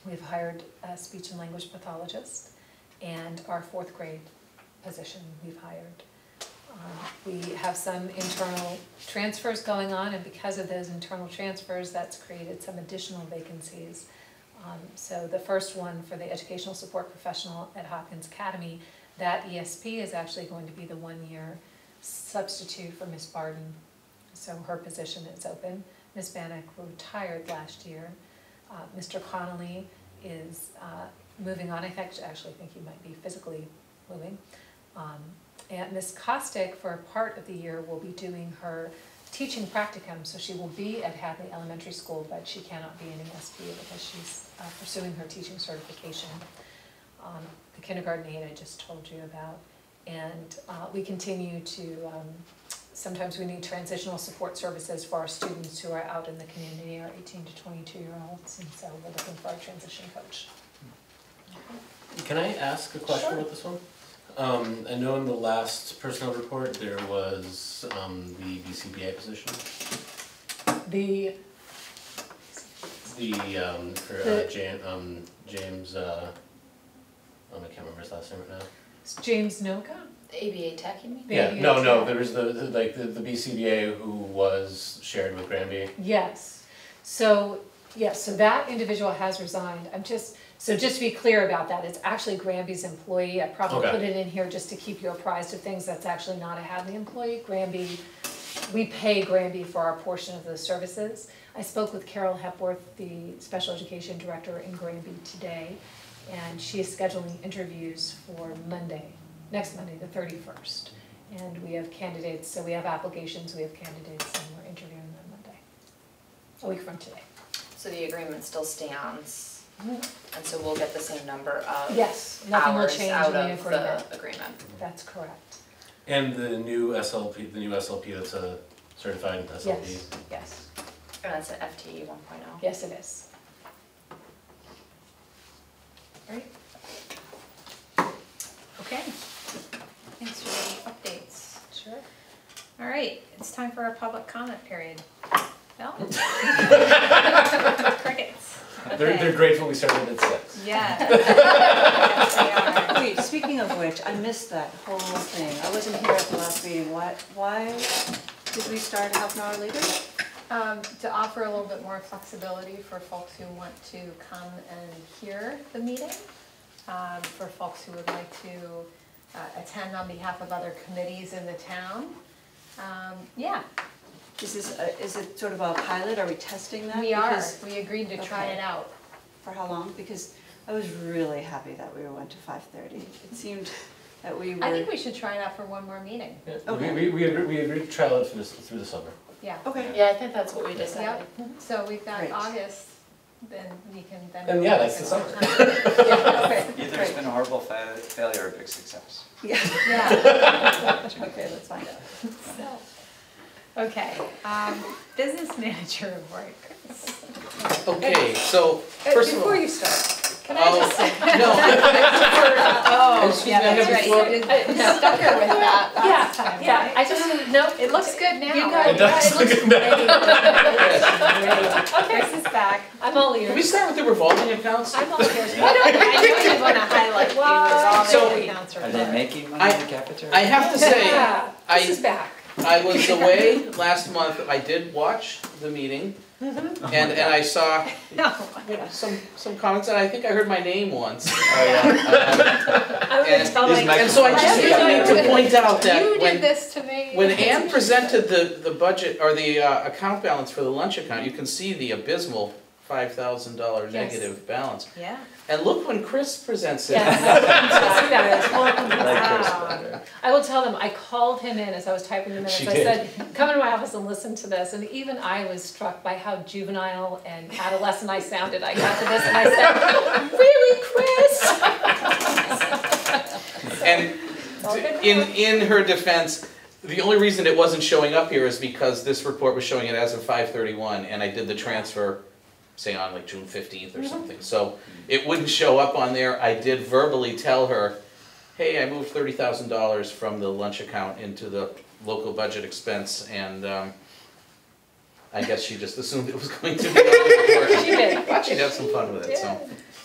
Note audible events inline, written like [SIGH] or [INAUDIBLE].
We've hired a speech and language pathologist and our fourth grade position we've hired. Um, We have some internal transfers going on and because of those internal transfers, that's created some additional vacancies. Um, So the first one for the educational support professional at Hopkins Academy, that ESP is actually going to be the one-year substitute for Miss Barden. So her position is open. Miss Bannock retired last year. Uh, Mr. Connolly is uh, moving on, I fact- actually think he might be physically moving. Um, And Miss Costick, for a part of the year, will be doing her teaching practicum, so she will be at Hadley Elementary School, but she cannot be an ESP because she's uh, pursuing her teaching certification. Um, The kindergarten aide I just told you about. And uh, we continue to, um, sometimes we need transitional support services for our students who are out in the community, our eighteen to twenty-two year olds, and so we're looking for a transition coach. Can I ask a question Sure. about this one? Um, I know in the last personnel report, there was, um, the BCBA position, The, the, um, for, uh, The- Jan, um, James, uh, um, I can't remember his last name right now. James Noka, The ABA tech, you mean? The Yeah, no, no, ABA. there was the, the- like, the, the BCBA who was shared with Granby. Yes, so, yes, so that individual has resigned, I'm just, so just to be clear about that, it's actually Granby's employee, I probably Okay. put it in here just to keep you apprised of things, that's actually not a Hadley employee, Granby, we pay Granby for our portion of those services. I spoke with Carol Hepworth, the special education director in Granby today, and she is scheduling interviews for Monday, next Monday, the thirty-first. And we have candidates, so we have applications, we have candidates, and we're interviewing them Monday a week from today. So the agreement still stands, and so we'll get the same number of Yes, nothing will hours change out in the of agreement. the agreement. That's correct. And the new SLP, the new SLP that's a certified SLP. Yes, yes, And that's an FTE E one oh. yes it is. Right? Okay, Thanks for the updates. sure. All right, it's time for our public comment period. [LAUGHS] Bill? Crickets. They're, they're grateful we started at six. Yeah. Yes, they are. Wait, speaking of which, I missed that whole thing. I wasn't here at the last meeting. Why, why did we start half an hour later? Um, to offer a little bit more flexibility for folks who want to come and hear the meeting, um, for folks who would like to, uh, attend on behalf of other committees in the town. Um, yeah, Is this, a- is it sort of a pilot? Are we testing that? we are, Because- we agreed to try okay. it out. For how long? Because I was really happy that we went to five thirty. It seemed that we were. I think we should try it out for one more meeting, Yeah, Okay. We, we, we agreed, we agreed to trial it through the, through the summer. yeah. Okay. Yeah, I think that's what we decided. Yep, so we've got Mm-hmm. Great. August, then we can then. And yeah, that's the summer. Okay, Either it's great. been a horrible fa- failure or a big success. Yeah, Yeah, okay, let's find out. so, Okay, um, business manager of work. Okay, so Uh, first of all. Oh, Before you start, Can I just say? No, Oh, Excuse yeah, me, I that's have right. a You [LAUGHS] floor. did I stuck her with that last Yeah, time, yeah, right? I just, no, It looks good now. You guys- It does look good now. Chris is [LAUGHS] back. I'm all ears. can we start with the revolving accounts? I'm all I ears. don't, I know you wanna highlight the So- resolving accounts Are report. they making money I- in the cafeteria? I have to say, Yeah, I- This is back. I was away last month, I did watch the meeting, and, and I saw No. some, some comments, and I think I heard my name once. Um, Oh, yeah. I'm gonna And- tell my, These mic- And so I just really need to point out You that did when, this to me. when Ann presented the, the budget, or the uh, account balance for the lunch account, you can see the abysmal five thousand dollar Yes. negative balance. Yeah. And look when Chris presents it. yes, I see that. I like yours Wow. better. I will tell them, I called him in as I was typing the minutes, She I did. [LAUGHS] said, come into my office and listen to this, and even I was struck by how juvenile and adolescent I sounded, I got to this and I said, really, Chris? And d- in, in her defense, the only reason it wasn't showing up here is because this report was showing it as of five thirty-one, and I did the transfer, say on like June fifteenth Mm-hmm. or something, so it wouldn't show up on there, I did verbally tell her, hey, I moved thirty thousand dollars from the lunch account into the local budget expense, and, um, I guess she just assumed it was going to be on the report. [LAUGHS] She did. Thought she'd have some fun with it, so. Yeah.